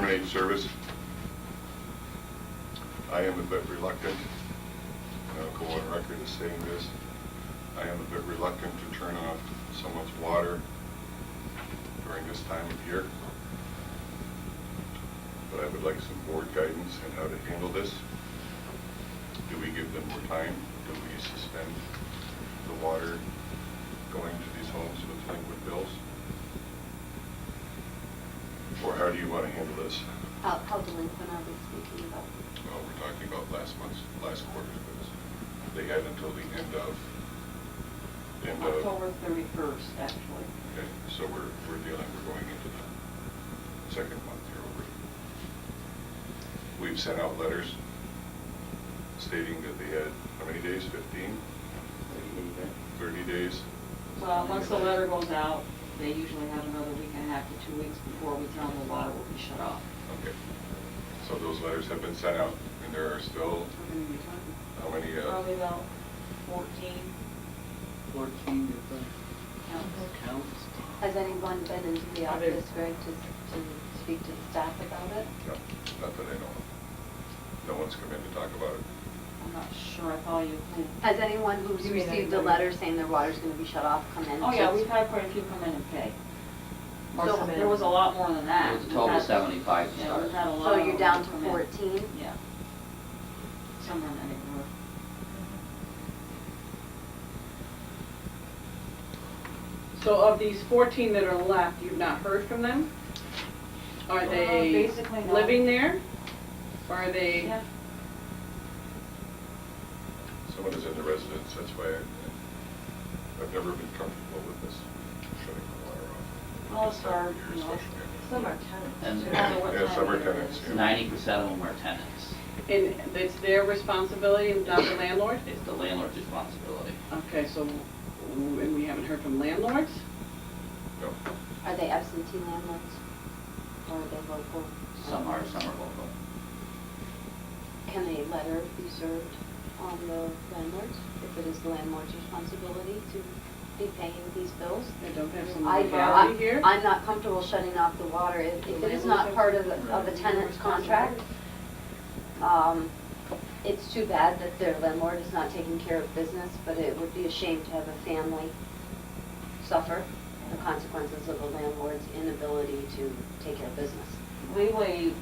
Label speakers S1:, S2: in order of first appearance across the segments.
S1: paid service. I am a bit reluctant, and I'll go on record as saying this, I am a bit reluctant to turn off someone's water during this time of year. But I would like some board guidance on how to handle this. Do we give them more time? Do we suspend the water going to these homes with liquid bills? Or how do you want to handle this?
S2: How, how delinquent are we speaking about?
S1: Well, we're talking about last month's, last quarter's bills. They had until the end of, end of.
S3: October 31st, actually.
S1: Okay, so we're, we're dealing, we're going into the second month here already. We've sent out letters stating that they had, how many days, fifteen, thirty days?
S3: Well, once the letter goes out, they usually have another week and a half to two weeks before we tell them the water will be shut off.
S1: Okay, so those letters have been sent out, and there are still,
S3: We're gonna be talking
S1: how many, uh,
S3: Probably about 14
S4: Fourteen different
S3: counts.
S4: accounts.
S2: Has anyone been into the office, Greg, to, to speak to the staff about it?
S1: no, not that I know of. No one's come in to talk about it.
S3: I'm not sure, I thought you.
S2: Has anyone who's
S5: You mean
S2: received a
S5: anybody?
S2: letter saying their water's gonna be shut off come in?
S3: Oh, yeah,
S2: to-
S3: we've had quite a few come in and pay.
S2: Or
S3: So
S2: come in.
S3: There was a lot more than that.
S6: It was a total
S3: We've had-
S6: 75
S3: Yeah, we've had a lot.
S2: So
S3: of
S2: you're down to
S3: them come in.
S2: fourteen?
S3: Yeah. Somewhere in that neighborhood.
S5: So of these 14 that are left, you've not heard from them? Are
S3: Uh,
S5: they
S3: basically no.
S5: living there? Or are they,
S3: Yeah.
S1: Someone is in the residence, that's why I- I've never been comfortable with this shutting the water off.
S3: Well, it's our,
S1: Years,
S3: you know,
S1: especially.
S7: Some are tenants.
S6: And-
S7: too.
S3: I don't know what
S1: Yeah,
S3: time
S1: summer
S3: it is.
S1: tenants, yeah.
S6: Ninety percent of them are tenants.
S5: and it's their responsibility, not uh, the landlord? Uh-huh.
S6: It's the landlord's responsibility.
S5: Okay, so, and we haven't heard from landlords?
S1: No,
S2: Are they absentee landlords? Or are they local?
S6: Some are, some are local.
S2: Can a letter be served on the landlords if it is the landlord's responsibility to be paying these bills?
S5: They don't have some
S2: I,
S5: legality here?
S2: I- I'm not comfortable shutting off the water. If if it is not part of, the- of a tenant's contract, um, it's too bad that their landlord is not taking care of business, but it would be a shame to have a family suffer the consequences of a landlord's inability to take care of business.
S3: legally,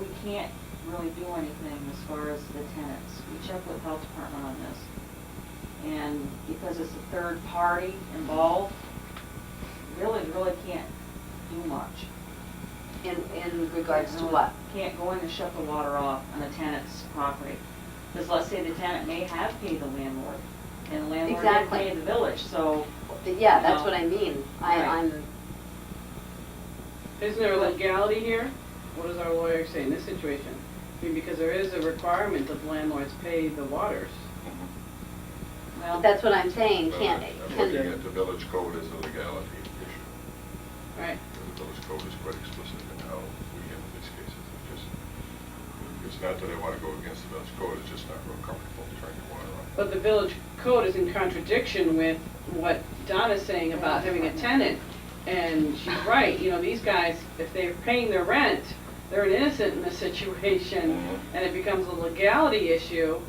S3: we can't really do anything as far as the tenants. We check with health department on this. And because it's a third party involved, really, really can't do much.
S2: In, in regards to what?
S3: Can't go in and shut the water off on a tenant's property. Because let's say the tenant may have paid the landlord, and the landlord didn't
S2: Exactly.
S3: pay the village, so.
S2: But Yeah, that's
S3: No.
S2: what I mean. I,
S3: Right.
S2: I'm,
S5: Isn't there legality here? What does our lawyer say in this situation? I mean, because there is a requirement that landlords pay the waters.
S1: Mhm.
S3: well,
S2: that's what I'm saying,
S1: Well,
S2: can't,
S1: uh, I'm looking
S2: can,
S1: at the village code as a legality issue.
S5: Right.
S1: The village code is quite explicit in how we handle these cases. It just, it's not that I want to go against the village code, it's just not real comfortable turning the water on.
S5: But the village code is in contradiction with what Donna's saying about having a tenant. And she's right, you know, these guys, if they're paying their rent, they're an innocent in this situation, and it becomes a legality issue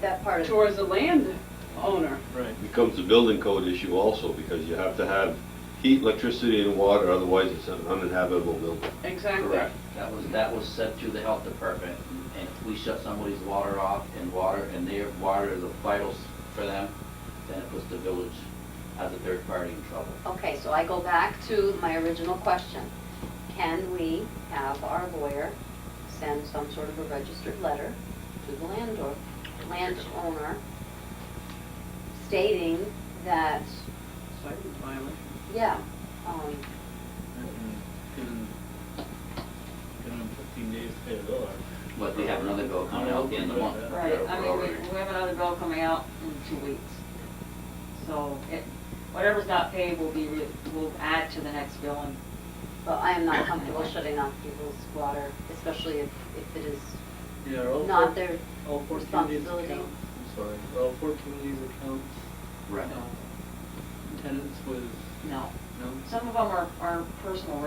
S2: that part of.
S5: towards the landowner.
S4: Right.
S8: becomes a building code issue also, because you have to have heat, electricity, and water, otherwise it's an uninhabitable building.
S5: Exactly.
S6: That was, that was set through the health department, and if we shut somebody's water off and water, and their water is the vitals for them, then it puts the village as a third party in trouble.
S2: Okay, so I go back to my original question. Can we have our lawyer send some sort of a registered letter to the landlord, landowner stating that,
S5: Site violation.
S2: yeah, um,
S4: Given, given them fifteen days to pay the bill. I-
S6: But they have another bill coming out at the end of the month.
S3: Right,
S1: Yeah, we're
S3: I mean, we,
S1: already-
S3: we have another bill coming out in two weeks. So it, whatever's not paid will be, re- will add to the next bill and,
S2: but I am not comfortable shutting off people's water, especially if, if it is
S4: Yeah, are all four-
S2: not their
S4: All fourteen days
S2: responsibility.
S4: accounts, I'm sorry, are all fourteen days accounts,
S6: Right.
S4: uh, tenants was,
S3: no.
S4: no?
S3: Some of them are, are personal